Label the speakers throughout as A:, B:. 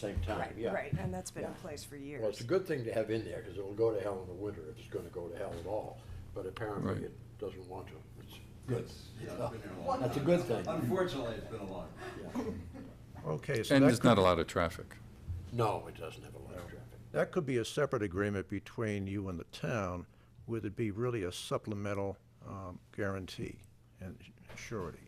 A: same time,
B: Right,
A: yeah.
B: right, and that's been in
A: Yeah.
B: place for years.
A: Well, it's a good thing to have in there, because it'll go to hell in the winter if it's gonna go to hell at all, but apparently
C: Right.
A: it doesn't want to. It's good.
D: It's, yeah, it's been here a long time.
A: That's a good thing.
D: Unfortunately, it's been a long.
A: Yeah.
E: Okay, so
C: And
E: that
C: there's not a
E: could,
C: lot of traffic.
A: No, it doesn't have a lot of traffic.
E: that could be a separate agreement between you and the town, would it be really a supplemental um, guarantee and surety?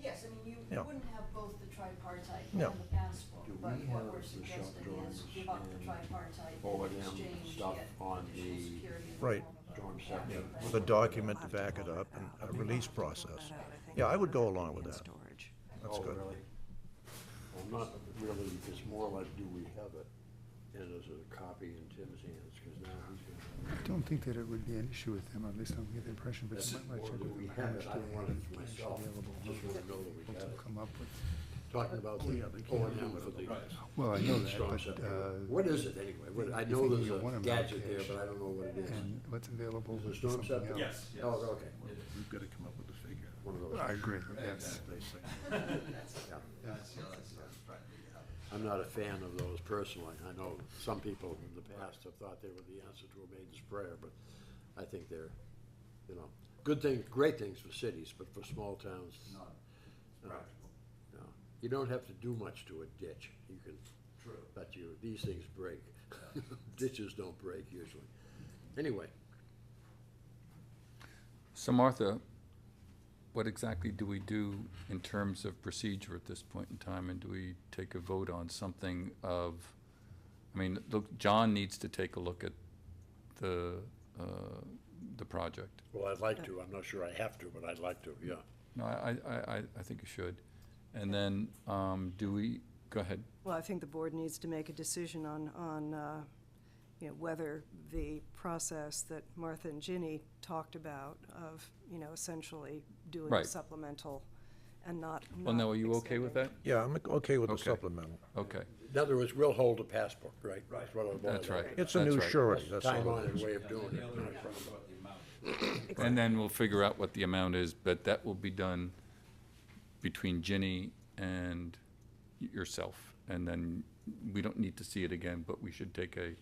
F: Yes, I mean, you
E: Yeah.
F: wouldn't have both the tripartite and
E: No.
F: the passport,
A: Do
F: but
A: we have
F: what we're
A: the shop
F: suggesting is
A: drawings
F: give up the
A: and
F: tripartite
A: O
F: and
A: and M
F: exchange
A: stuff
F: yet
A: on
F: additional
A: the
F: security in the
E: Right.
F: form of-
A: Storm
F: Yeah.
A: scepter.
E: With a document to back it up and a release process. Yeah, I would go along with that.
B: Storage.
E: That's
A: Oh,
E: good.
A: really? Well, not really, it's more like, do we have it? And is it a copy in Tim's hands, because now he's
G: I
A: gonna.
G: don't think that it would be an issue with them, at least I don't get the impression, but
A: That's
G: you
A: it.
G: might
A: Or
G: want to check
A: do
G: with
A: we
G: them how
A: have
G: much
A: it? I
G: they
A: wanted
G: have
A: to
G: cash
A: myself.
G: available.
A: Just wanna know that we
G: What
A: got
G: they'll
A: it.
G: come up with.
A: Talking about the
G: they
A: O and M for the.
G: Well, I know
A: storm
G: that, but,
A: scepter.
G: uh,
A: What is it anyway? What, I
G: you
A: know
G: think
A: there's
G: you want
A: a
G: 'em
A: gadget
G: out
A: there,
G: cash.
A: but I don't know what it is.
G: and what's available
A: Is it
G: would be
A: storm
G: something
A: scepter?
G: else.
D: Yes, yes.
A: Oh, okay.
E: We've got to come up with a figure.
A: One of those.
G: I agree, yes.
E: They say.
A: Yeah.
D: That's, yeah, that's, that's right.
A: I'm not a fan of those personally. I know some people in the past have thought they were the answer to a maiden's prayer, but I think they're, you know, good things, great things for cities, but for small towns, no.
D: Not practical,
A: You don't have to do much to a ditch. You can,
D: true.
A: but you, these things break. Ditches don't break usually. Anyway,
C: So Martha, what exactly do we do in terms of procedure at this point in time? And do we take a vote on something of, I mean, look, John needs to take a look at the, uh, the project.
A: well, I'd like to. I'm not sure I have to, but I'd like to, yeah.
C: No, I, I, I, I think you should. And then, um, do we, go ahead.
B: Well, I think the board needs to make a decision on, on, uh, you know, whether the process that Martha and Ginny talked about of, you know, essentially doing a
C: Right.
B: supplemental and not.
C: Well,
B: not
C: now, are you okay with
B: extending.
C: that?
E: Yeah, I'm okay with the
C: Okay.
E: supplemental.
C: Okay,
A: In other words, we'll hold a passport, right? That's what it boils
C: that's right.
A: down to.
E: It's a
C: That's
E: new
C: right.
E: surety, that's
A: Time
E: all
A: on
E: it
A: it,
E: is.
A: way of doing
D: The
A: it.
D: other one was about the amount.
C: And then we'll figure out what the amount is, but that will be done between Ginny and y- yourself. And then we don't need to see it again, but we should take a,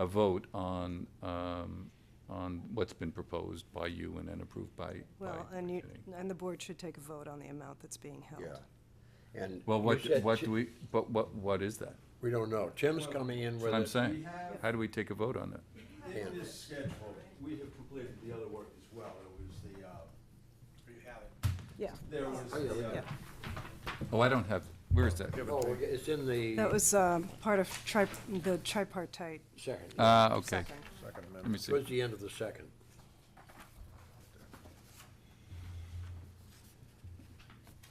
C: a vote on, um, on what's been proposed by you and then approved by, by
B: Well, and you,
C: Ginny.
B: and the board should take a vote on the amount that's being held.
A: Yeah. And.
C: Well,
A: you
C: what,
A: said
C: what
A: Ti-
C: do we, but what, what is that?
A: We don't know. Tim's coming in with
C: What I'm
A: it.
C: saying,
D: have-
C: how do we take a vote on that?
A: Yeah.
D: In this schedule, we have completed the other work as well. It was the, uh, you have it.
B: Yeah,
D: There was
A: Oh, yeah, we
D: the, uh,
B: yeah.
C: Oh, I don't have, where is that?
A: Oh, it's in the
B: That was, um, part of tri, the tripartite
A: second.
C: Ah, okay,
B: second.
C: let
E: Second
C: me
E: amendment.
C: see.
A: Towards the end of the second.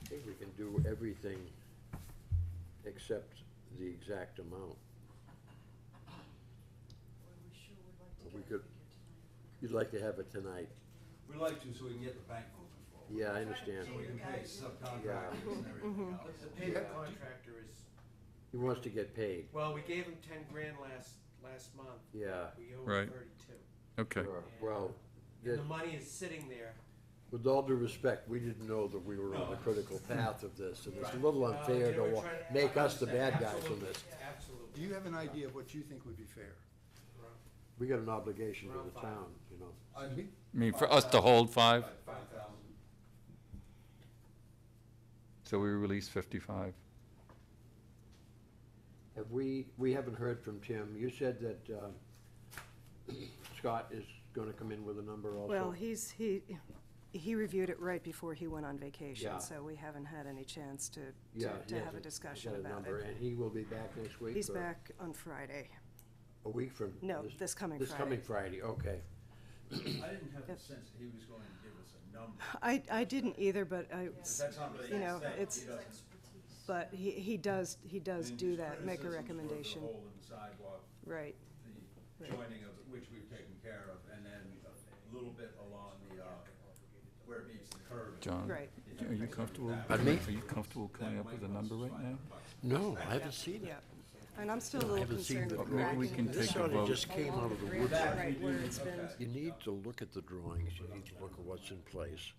A: I think we can do everything except the exact amount.
F: We sure would like to
A: We
F: get
A: could-
F: a figure tonight.
A: You'd like to have it tonight.
D: we like to, so we can get the bank moving forward.
A: Yeah, I understand.
D: So we can pay subcontractors and everything
B: Mm-hmm.
D: else.
H: The pavement contractor is,
A: He wants to get paid.
H: well, we gave him ten grand last, last month.
A: Yeah.
H: We owe
C: Right.
H: him thirty-two.
C: Okay,
A: Sure. Well,
H: And
A: that-
H: the money is sitting there.
A: with all due respect, we didn't know that we were on the critical path of this, and it's a little
H: Uh,
A: unfair
H: they were
A: to wa-
H: trying
A: make us the bad guys on
H: Absolutely,
A: this.
G: Do
H: Absolutely.
G: you have an idea of what you think would be fair?
A: We got an obligation to the town, you know.
D: I'd be
C: I mean, for us to hold five,
D: like five thousand.
C: so we release fifty-five.
A: Have we, we haven't heard from Tim. You said that um, Scott is going to come in with a number also.
B: Well, he's, he, he reviewed it right before he went on vacation,
A: Yeah.
B: so we haven't had any chance to,
A: Yeah,
B: to,
A: he
B: to
A: has
B: have
A: a-
B: a
A: he's
B: discussion
A: got a
B: about
A: number,
B: it.
A: And he will be back next week?
B: He's
A: or
B: back on Friday.
A: A week from?
B: No, this coming
A: This coming Friday, okay.
D: I didn't have the
B: Yep.
D: sense that he was going to give us a number.
B: I, I didn't either, but I,
D: But That's not really
B: You know,
D: his thing. He
B: it's-
D: doesn't-
F: Expertise.
B: but he, he does, he does
D: And
B: do
D: his
B: that, make a
D: criticisms were
B: recommendation,
D: The hole in the sidewalk,
B: right.
D: the joining of, which we've taken care of, and then a little bit along the, uh, where it meets the curve.
C: John?
B: Right.
C: Are you comfortable, are
A: Pardon me?
C: you comfortable coming up with a number right now?
A: No, I haven't seen it.
B: Yeah, and I'm still a little
A: haven't seen
B: concerned
A: the
B: with
A: drawing.
C: Maybe we
B: cracking
C: can
B: the
A: This
C: take a
A: sort
B: along
A: of
C: vote.
A: just came out of the woods.
B: Right, where it's been,
A: You need to look at the drawings, you need to look at what's in place.